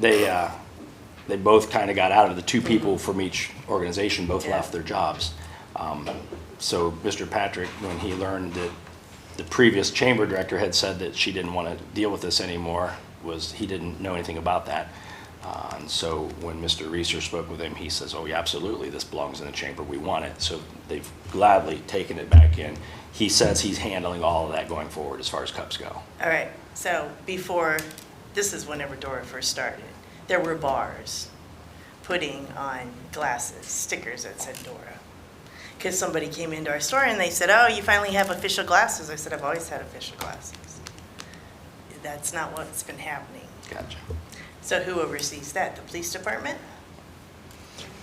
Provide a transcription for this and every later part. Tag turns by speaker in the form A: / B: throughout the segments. A: they, uh, they both kind of got out of it. The two
B: Mm-hmm.
A: people from each organization both left their jobs. Um, So Mr. Patrick, when he learned that the previous chamber director had said that she didn't want to deal with this anymore, was, he didn't know anything about that. Uh, And so when Mr. Reeser spoke with him, he says, oh, yeah, absolutely, this belongs in the chamber, we want it. So they've gladly taken it back in. He says he's handling all of that going forward as far as cups go.
B: All right, so before, this is whenever Dora first started, there were bars putting on glasses, stickers that said Dora. Because somebody came into our store and they said, oh, you finally have official glasses. I said, I've always had official glasses. That's not what's been happening.
A: Gotcha.
B: So who oversees that? The police department?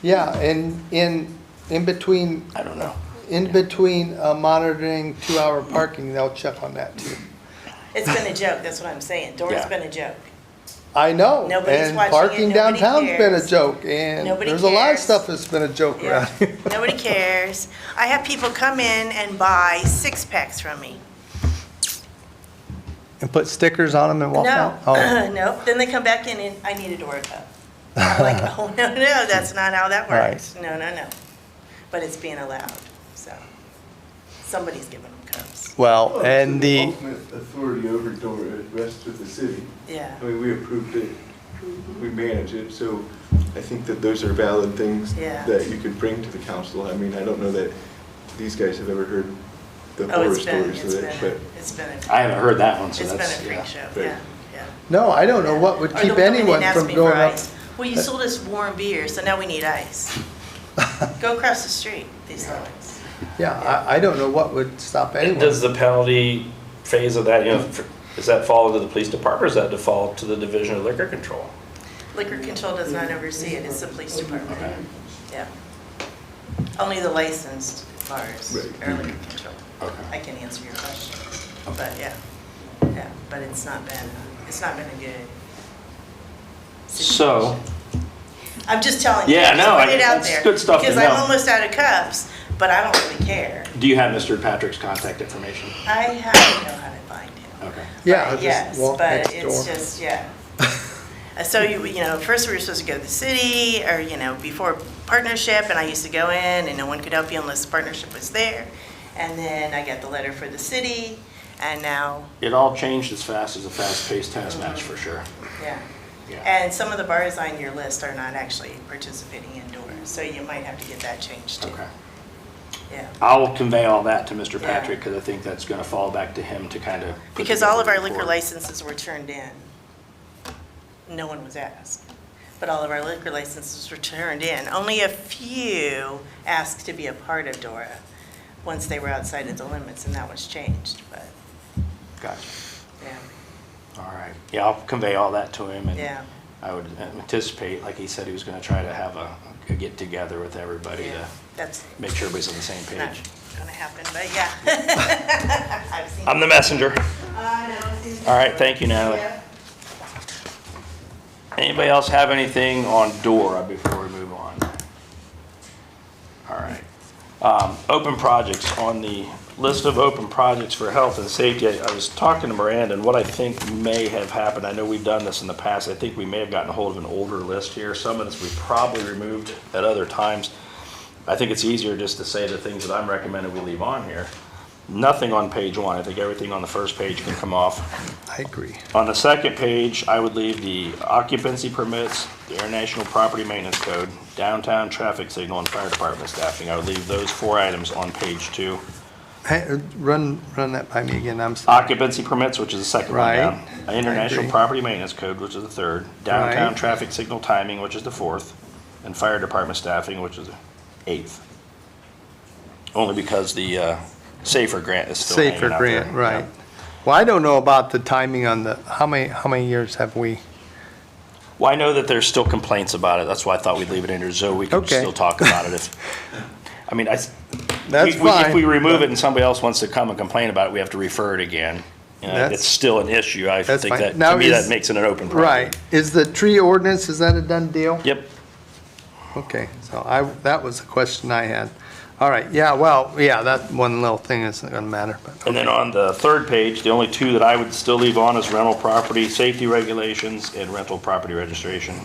C: Yeah, and in, in between,
A: I don't know.
C: in between uh, monitoring two-hour parking, they'll check on that too.
B: It's been a joke, that's what I'm saying. Dora's
A: Yeah.
B: been a joke.
C: I know,
B: Nobody's
C: and
B: watching it,
C: parking
B: nobody
C: downtown's been a
B: cares.
C: joke, and
B: Nobody
C: there's a lot of
B: cares.
C: stuff that's been a joke around
B: Yeah.
C: here.
B: Nobody cares. I have people come in and buy six packs from me.
C: And put stickers on them and walk
B: No,
C: out? Oh,
B: no. Then they come back in and I need a Dora cup. I'm like, oh, no, no, that's not how that works. No, no, no. But it's being allowed, so. Somebody's giving them cups,
C: Well,
D: Well,
C: and the,
D: Ultimate authority over Dora rests with the city.
B: yeah.
D: I mean, we approved it, we manage it, so I think that those are valid things
B: Yeah.
D: that you could bring to the council. I mean, I don't know that these guys have ever heard the
B: Oh,
D: horror
B: it's been,
D: stories
B: it's
D: of
B: been,
D: it,
B: a-
D: but
B: it's been, a-
A: I haven't heard that one, so
B: it's been a
A: that's,
B: freak
A: yeah.
B: show,
D: but-
B: yeah, yeah.
C: no, I don't know what would
B: Or they'll
C: keep
B: come in and
C: anyone
B: ask
C: from
B: me
C: going
B: for
C: up.
B: ice. Well, you sold us warm beer, so now we need ice. Go across the street, these lines.
C: Yeah, I, I don't know what would stop
E: And Does
C: anyone.
E: the penalty phase of that, you know,
A: Hmm.
E: for- does that fall into the police department or does that default to the Division of Liquor Control?
B: Liquor control does not oversee it, it's the police
A: Okay.
B: department, yeah. Only the licensed bars
D: Right.
B: are liquor control.
A: Mm-hmm. Okay.
B: I can answer your question, but yeah, yeah, but it's not been, it's not been a good
A: So,
B: situation. I'm just telling you.
A: Yeah,
B: I'm just
A: no,
B: putting
A: I-
B: it out
A: that's
B: there,
A: good stuff to
B: Because I'm
A: know.
B: almost out of cups, but I don't really care.
A: do you have Mr. Patrick's contact information?
B: I have to know how to find him.
A: Okay.
C: Yeah, I'll
B: But
C: just
B: Yes,
C: walk next
B: but
C: door.
B: it's just, yeah. Uh, So you, you know, first we were supposed to go to the city or, you know, before partnership and I used to go in and no one could help you unless the partnership was there. And then I got the letter for the city and now,
A: It all changed as fast as a fast-paced tennis match, for sure.
B: yeah.
A: Yeah.
B: And some of the bars on your list are not actually participating indoors, so you might have to get that changed too.
A: Okay.
B: Yeah.
A: I'll convey all that to Mr.
B: Yeah.
A: Patrick, because I think that's going to fall back to him to kind of.
B: Because all of our liquor licenses were turned in. No one was asked. But all of our liquor licenses were turned in. Only a few asked to be a part of Dora once they were outside of the limits, and that was changed, but,
A: Gotcha.
B: yeah,
A: All right. Yeah, I'll convey all that to him, and
B: yeah.
A: I would anticipate, like he said, he was going to try to have a, a get-together with everybody
B: yeah.
A: to
B: That's
A: make sure everybody's on the same
B: not
A: Oh, page.
B: gonna happen, but yeah. I've seen.
A: I'm the messenger.
B: I know, I've seen-
A: All right, thank you, Natalie.
B: Yeah.
A: Anybody else have anything on DORA before we move on? All right. Um, Open projects, on the list of open projects for health and safety, I I was talking to Miranda, and what I think may have happened, I know we've done this in the past, I think we may have gotten a hold of an older list here, some of this we probably removed at other times. I think it's easier just to say the things that I'm recommending we leave on here. Nothing on page one, I think everything on the first page can come off.
C: I agree.
A: On the second page, I would leave the occupancy permits, the international property maintenance code, downtown traffic signal, and fire department staffing. I would leave those four items on page two.
C: Hey, uh, run, run that by me again, I'm sorry.
A: Occupancy permits, which is the second one down.
C: Right. I
A: International
C: agree.
A: property maintenance code, which is the third. Downtown
C: Right.
A: traffic signal timing, which is the fourth. And fire department staffing, which is the eighth. Only because the uh, safer grant is still hanging
C: Safer
A: out there.
C: grant, right.
A: Yep.
C: Well, I don't know about the timing on the, how many, how many years have we?
A: Well, I know that there's still complaints about it. That's why I thought we'd leave it in there so we could
C: Okay.
A: still talk about it if, I mean, I, s-
C: That's
A: we- we-
C: fine.
A: if we remove it and somebody else wants to come and complain about it, we have to refer it again. You know,
C: That's-
A: It's still an issue. I
C: That's
A: think
C: fine.
A: that,
C: Now
A: to me,
C: is-
A: that makes it an open
C: Right.
A: project.
C: Is the tree ordinance, is that a done deal?
A: Yep.
C: Okay, so I, that was a question I had. All right, yeah, well, yeah, that one little thing isn't gonna matter, but,
A: And then on the third page, the only two that I would still leave on is rental property safety regulations and rental property registration.